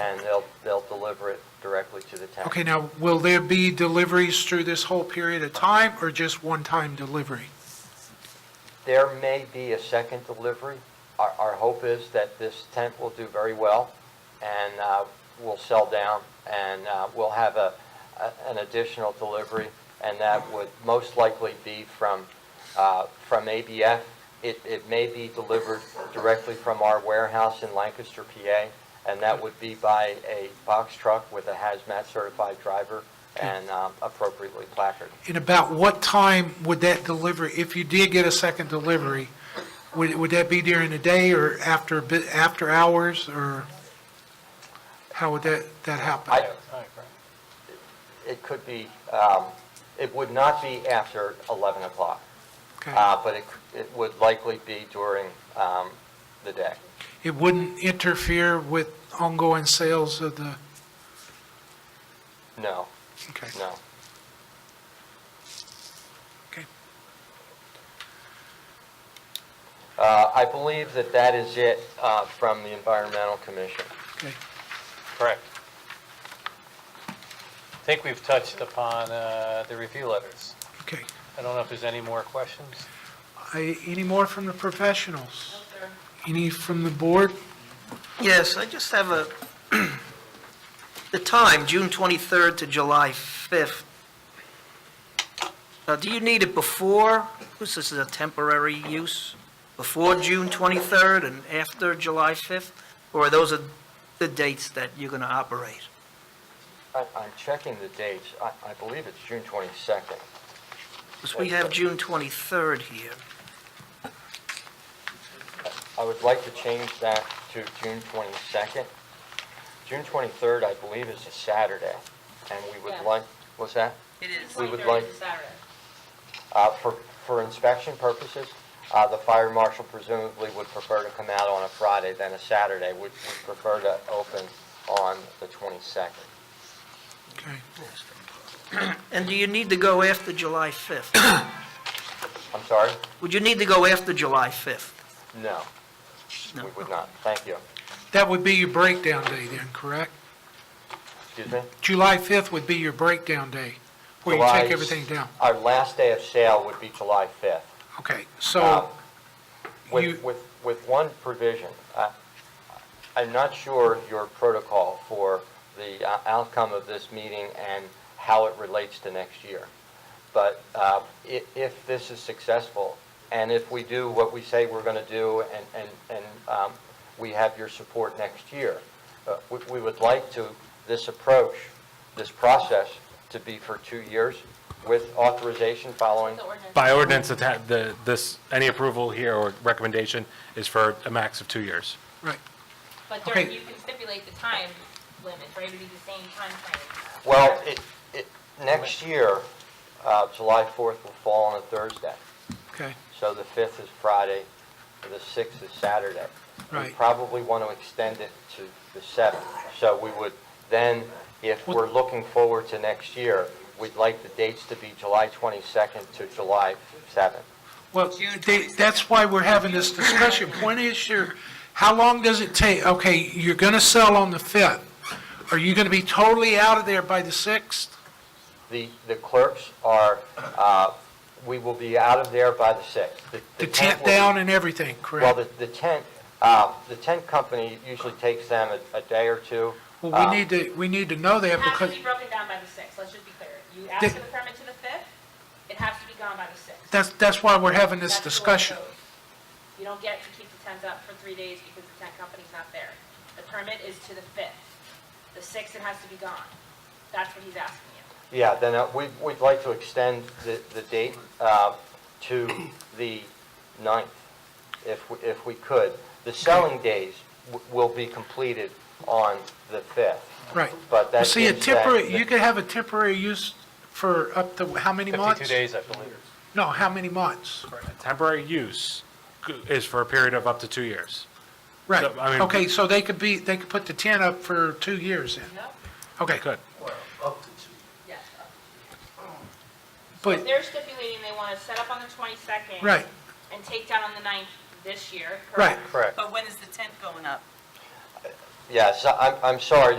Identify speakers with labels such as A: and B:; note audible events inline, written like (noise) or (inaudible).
A: and they'll, they'll deliver it directly to the town.
B: Okay, now, will there be deliveries through this whole period of time, or just one-time delivery?
A: There may be a second delivery. Our, our hope is that this tent will do very well and uh, will sell down and uh, we'll have a, a- an additional delivery. And that would most likely be from, uh, from ABF. It, it may be delivered directly from our warehouse in Lancaster, PA. And that would be by a box truck with a hazmat certified driver and um, appropriately placarded.
B: And about what time would that delivery, if you did get a second delivery, would, would that be during the day or after, bu- after hours, or how would that, that happen?
A: I- It could be, um, it would not be after 11 o'clock,
B: Okay.
A: uh, but it it would likely be during um, the day.
B: It wouldn't interfere with ongoing sales of the,
A: No,
B: okay.
A: no.
B: Okay.
A: Uh, I believe that that is it uh, from the Environmental Commission.
B: Okay.
C: Correct. I think we've touched upon uh, the review letters.
B: Okay.
C: I don't know if there's any more questions.
B: I- Any more from the professionals? Any from the board?
D: Yes, I just have a, (clears throat) the time, June 23rd to July 5th. Uh, Do you need it before, this is a temporary use, before June 23rd and after July 5th? Or are those are the dates that you're going to operate?
A: I- I'm checking the dates. I I believe it's June 22nd.
D: Because we have June 23rd here.
A: I would like to change that to June 22nd. June 23rd, I believe, is a Saturday, and we would
E: Yeah.
A: like, what's that?
E: It is.
A: We would like-
E: Saturday.
A: Uh, For for inspection purposes, uh, the fire marshal presumably would prefer to come out on a Friday than a Saturday, would would prefer to open on the 22nd.
B: Okay.
D: And do you need to go after July 5th?
A: I'm sorry?
D: (coughs) Would you need to go after July 5th?
A: No, we would not. Thank you.
B: That would be your breakdown day then, correct?
A: Excuse me?
B: July 5th would be your breakdown day, where you
A: July's-
B: take everything down.
A: Our last day of sale would be July 5th.
B: Okay, so,
A: Um,
B: you-
A: With, with, with one provision, I- I'm not sure your protocol for the uh, outcome of this meeting and how it relates to next year. But uh, i- if this is successful, and if we do what we say we're going to do, and, and, and um, we have your support next year, uh, we- we would like to, this approach, this process, to be for two years with authorization following
E: The ordinance.
F: By ordinance, the ta- the, this, any approval here or recommendation is for a max of two years.
B: right,
E: But during,
B: okay.
E: you can stipulate the time limit, right? It'd be the same time frame.
A: Well, it, it, next year, uh, July 4th will fall on a Thursday,
B: okay,
A: so the 5th is Friday, the 6th is Saturday. We
B: Right.
A: probably want to extend it to the 7th, so we would then, if
B: What-
A: we're looking forward to next year, we'd like the dates to be July 22nd to July 7th.
B: well, they- that's why we're having this discussion. Point is, you're, how long does it take? Okay, you're going to sell on the 5th. Are you going to be totally out of there by the 6th?
A: The, the clerks are, uh, we will be out of there by the 6th.
B: The
A: tent
B: tent
A: will be-
B: down and everything,
A: Well,
B: correct?
A: the the tent, uh, the tent company usually takes them a a day or two.
B: Well,
A: uh,
B: we need to, we need to know that
E: It has
B: because
E: to be broken down by the sixth, let's just be clear. You
B: The-
E: ask for the permit to the fifth, it has to be gone by the sixth.
B: that's, that's why we're having
E: That's
B: this
E: the way it
B: discussion.
E: goes. You don't get to keep the tent up for three days because the tent company's not there. The permit is to the fifth. The sixth, it has to be gone. That's what he's asking you.
A: Yeah, then uh, we- we'd like to extend the the date uh, to the 9th, if we- if we could. The selling days w- will be completed on the 5th.
B: Right.
A: But that
B: See, a
A: gives that-
B: temporary, you could have a temporary use for up to, how many months?
C: 52 days, I believe.
B: No, how many months?
F: Temporary use is for a period of up to two years.
B: Right,
F: So, I mean-
B: okay, so they could be, they could put the tent up for two years then?
E: No?
B: Okay,
F: Good.
E: Yes.
B: but,
E: They're stipulating they want to set up on the twenty-second.
B: right,
E: and take down on the ninth this year,
B: right,
E: correct?
A: Correct.
G: But when is the tent going up?
A: Yes, I'm, I'm sorry to